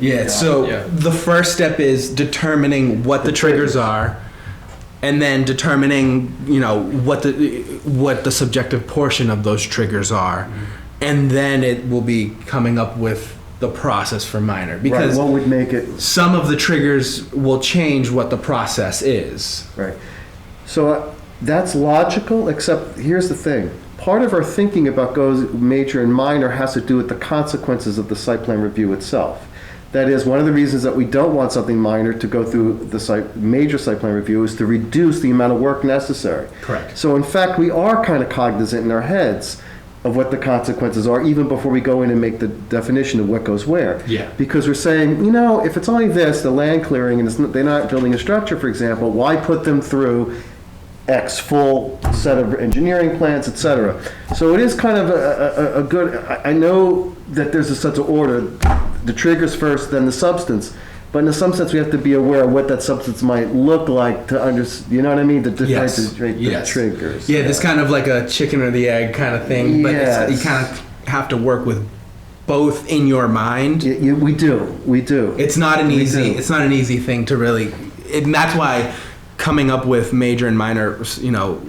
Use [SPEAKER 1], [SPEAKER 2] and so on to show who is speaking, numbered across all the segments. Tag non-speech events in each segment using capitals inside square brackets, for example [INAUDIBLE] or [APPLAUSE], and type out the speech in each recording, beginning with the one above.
[SPEAKER 1] Yeah, so
[SPEAKER 2] Yeah.
[SPEAKER 1] the first step is determining what the, triggers are and then determining, you know, what the what the subjective portion of those triggers are. And then it will be coming up with the process for minor
[SPEAKER 3] Right,
[SPEAKER 1] because
[SPEAKER 3] what would make it,
[SPEAKER 1] some of the triggers will change what the process is.
[SPEAKER 3] right. So uh, that's logical, except here's the thing. Part of our thinking about goes major and minor has to do with the consequences of the site plan review itself. That is, one of the reasons that we don't want something minor to go through the site, major site plan review is to reduce the amount of work necessary.
[SPEAKER 1] Correct.
[SPEAKER 3] So in fact, we are kind of cognizant in our heads of what the consequences are, even before we go in and make the definition of what goes where.
[SPEAKER 1] Yeah.
[SPEAKER 3] Because we're saying, you know, if it's only this, the land clearing, and it's, not- they're not building a structure, for example, why put them through X full set of engineering plans, et cetera? So it is kind of a, a, a- a good, I, I know that there's a sense of order, the triggers first, then the substance. But in some sense, we have to be aware of what that substance might look like to under, you know what I mean? To differentiate
[SPEAKER 1] Yes.
[SPEAKER 3] the, the
[SPEAKER 1] yes.
[SPEAKER 3] triggers.
[SPEAKER 1] Yeah, this kind of like a chicken or the egg kind of thing, but it's,
[SPEAKER 3] Yes.
[SPEAKER 1] you kind of have to work with both in your mind.
[SPEAKER 3] Y- y- we do, we do.
[SPEAKER 1] it's not an
[SPEAKER 3] We
[SPEAKER 1] easy
[SPEAKER 3] do.
[SPEAKER 1] it's not an easy thing to really and that's why coming up with major and minor you know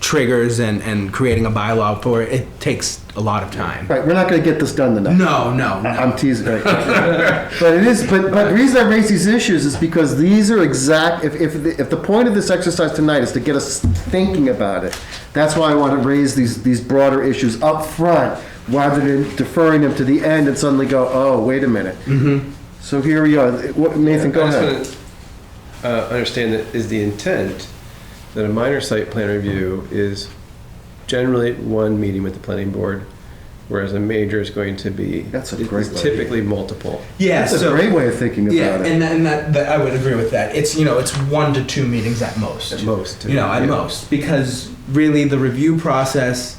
[SPEAKER 1] triggers and and creating a bylaw for it, it takes a lot of time
[SPEAKER 3] Right, we're not going to get this done tonight.
[SPEAKER 1] no no no
[SPEAKER 3] I'm teasing.
[SPEAKER 1] [LAUGHS]
[SPEAKER 3] Right. but it is. But, but the reason I raise these issues is because these are exact. If, if, the, if the point of this exercise tonight is to get us thinking about it, that's why I want to raise these these broader issues up front rather than deferring them to the end and suddenly go, oh, wait a minute. Mm-hmm. So here we are. What, Nathan, go
[SPEAKER 2] I just
[SPEAKER 3] ahead.
[SPEAKER 2] wanna, Uh, understand that is the intent that a minor site plan review is generally one meeting with the planning board, whereas a major is going to be.
[SPEAKER 3] That's a
[SPEAKER 2] is- is
[SPEAKER 3] great idea.
[SPEAKER 2] Typically multiple.
[SPEAKER 1] yeah
[SPEAKER 3] That's a
[SPEAKER 1] so
[SPEAKER 3] great way of thinking about
[SPEAKER 1] yeah
[SPEAKER 3] it.
[SPEAKER 1] and, that, and that, that i would agree with that it's you know it's one to two meetings at most
[SPEAKER 2] At most,
[SPEAKER 1] you know at
[SPEAKER 2] yeah.
[SPEAKER 1] most because really the review process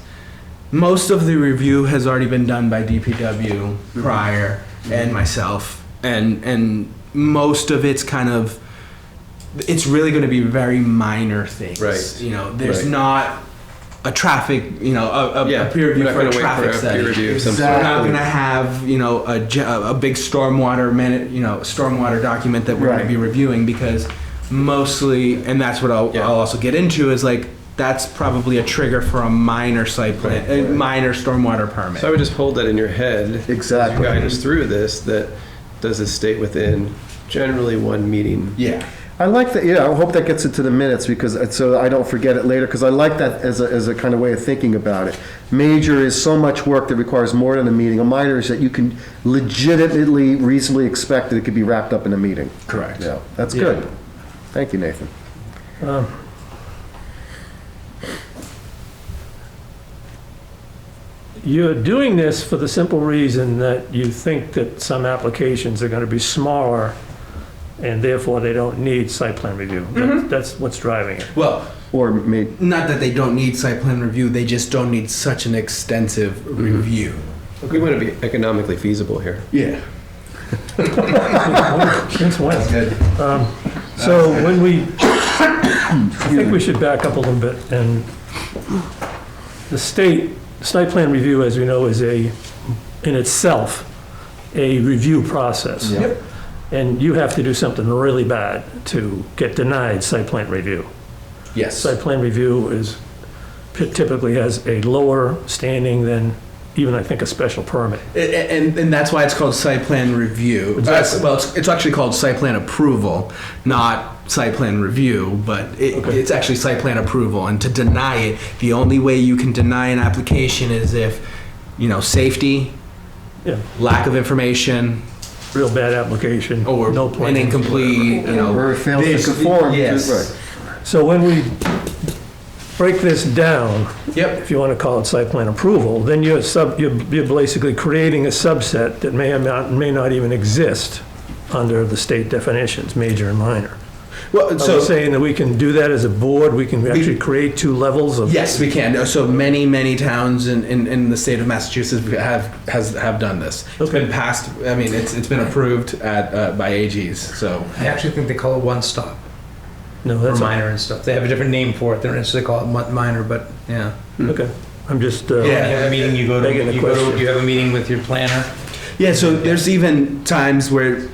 [SPEAKER 1] most of the review has already been done by DPW
[SPEAKER 2] Mm-hmm.
[SPEAKER 1] prior and myself and and most of it's kind of it's really going to be very minor things
[SPEAKER 2] Right.
[SPEAKER 1] you know there's
[SPEAKER 2] Right.
[SPEAKER 1] not a traffic you know a, a,
[SPEAKER 2] Yeah,
[SPEAKER 1] a peer review
[SPEAKER 2] we're not
[SPEAKER 1] for a
[SPEAKER 2] gonna wait
[SPEAKER 1] traffic
[SPEAKER 2] for a
[SPEAKER 1] study
[SPEAKER 2] peer review of some
[SPEAKER 1] so we're
[SPEAKER 2] sort.
[SPEAKER 3] Exactly.
[SPEAKER 1] not going to have you know a, ge- a big stormwater man, you know stormwater document that we're going
[SPEAKER 3] Right.
[SPEAKER 1] to be reviewing because mostly and that's what I'll,
[SPEAKER 2] Yeah.
[SPEAKER 1] I'll also get into is like that's probably a trigger for a minor site plan
[SPEAKER 2] Right,
[SPEAKER 1] a minor stormwater permit
[SPEAKER 2] So I would just hold that in your head. as you
[SPEAKER 3] Exactly.
[SPEAKER 2] Guide us through this, that does this state within generally one meeting?
[SPEAKER 1] yeah
[SPEAKER 3] I like that. Yeah, I hope that gets into the minutes because so I don't forget it later. Because I like that as a, as a kind of way of thinking about it. Major is so much work that requires more than a meeting. A minor is that you can legitimately, reasonably expect that it could be wrapped up in a meeting.
[SPEAKER 1] correct
[SPEAKER 3] Yeah, that's
[SPEAKER 1] Yeah.
[SPEAKER 3] good. Thank you, Nathan.
[SPEAKER 4] Um, You're doing this for the simple reason that you think that some applications are going to be smaller, and therefore they don't need site plan review. That- That's what's driving it.
[SPEAKER 1] well
[SPEAKER 3] Or made
[SPEAKER 1] not that they don't need site plan review they just don't need such an extensive
[SPEAKER 2] Mm-hmm.
[SPEAKER 1] review
[SPEAKER 2] We want to be economically feasible here.
[SPEAKER 1] yeah
[SPEAKER 4] Since when?
[SPEAKER 1] good
[SPEAKER 4] So when we, [COUGHS] I think we should back up a little bit, and the state, site plan review, as we know, is a, in itself, a review process.
[SPEAKER 1] Yep.
[SPEAKER 4] And you have to do something really bad to get denied site plan review.
[SPEAKER 1] yes
[SPEAKER 4] Site plan review is, typically has a lower standing than even, I think, a special permit.
[SPEAKER 1] A- a- And, and that's why it's called site plan review.
[SPEAKER 4] Exactly.
[SPEAKER 1] Uh, Well, it's, it's actually called site plan approval, not site plan review, but it,
[SPEAKER 4] Okay.
[SPEAKER 1] it's actually site plan approval. And to deny it, the only way you can deny an application is if, you know, safety,
[SPEAKER 4] Yeah,
[SPEAKER 1] lack of information,
[SPEAKER 4] real bad application,
[SPEAKER 1] or
[SPEAKER 4] no plan.
[SPEAKER 1] Oh, an incomplete, you know.
[SPEAKER 3] or fails
[SPEAKER 1] this-
[SPEAKER 3] to conform. to-
[SPEAKER 1] Yes.
[SPEAKER 3] right.
[SPEAKER 4] So when we break this down,
[SPEAKER 1] Yep.
[SPEAKER 4] if you want to call it site plan approval, then you're sub, you're you're basically creating a subset that may or not, may not even exist under the state definitions, major and minor.
[SPEAKER 1] Well,
[SPEAKER 4] So
[SPEAKER 1] so,
[SPEAKER 4] saying that we can do that as a board, we can actually create two levels of.
[SPEAKER 1] yes, we can. So many, many towns in, in, in the state of Massachusetts have, has, have done this. It's been
[SPEAKER 4] Okay.
[SPEAKER 1] passed, I mean, it's, it's been approved at, uh, by AGs, so.
[SPEAKER 5] I actually think they call it one stop
[SPEAKER 4] No,
[SPEAKER 5] for
[SPEAKER 4] that's,
[SPEAKER 5] minor and stuff. They have a different name for it. They're not they call it mon- minor, but yeah.
[SPEAKER 4] okay. I'm just, uh,
[SPEAKER 1] Yeah.
[SPEAKER 5] You have a meeting. You go to.
[SPEAKER 4] Begging the
[SPEAKER 5] You, go to
[SPEAKER 4] question.
[SPEAKER 5] you have a meeting with your planner.
[SPEAKER 1] Yeah, so there's even times where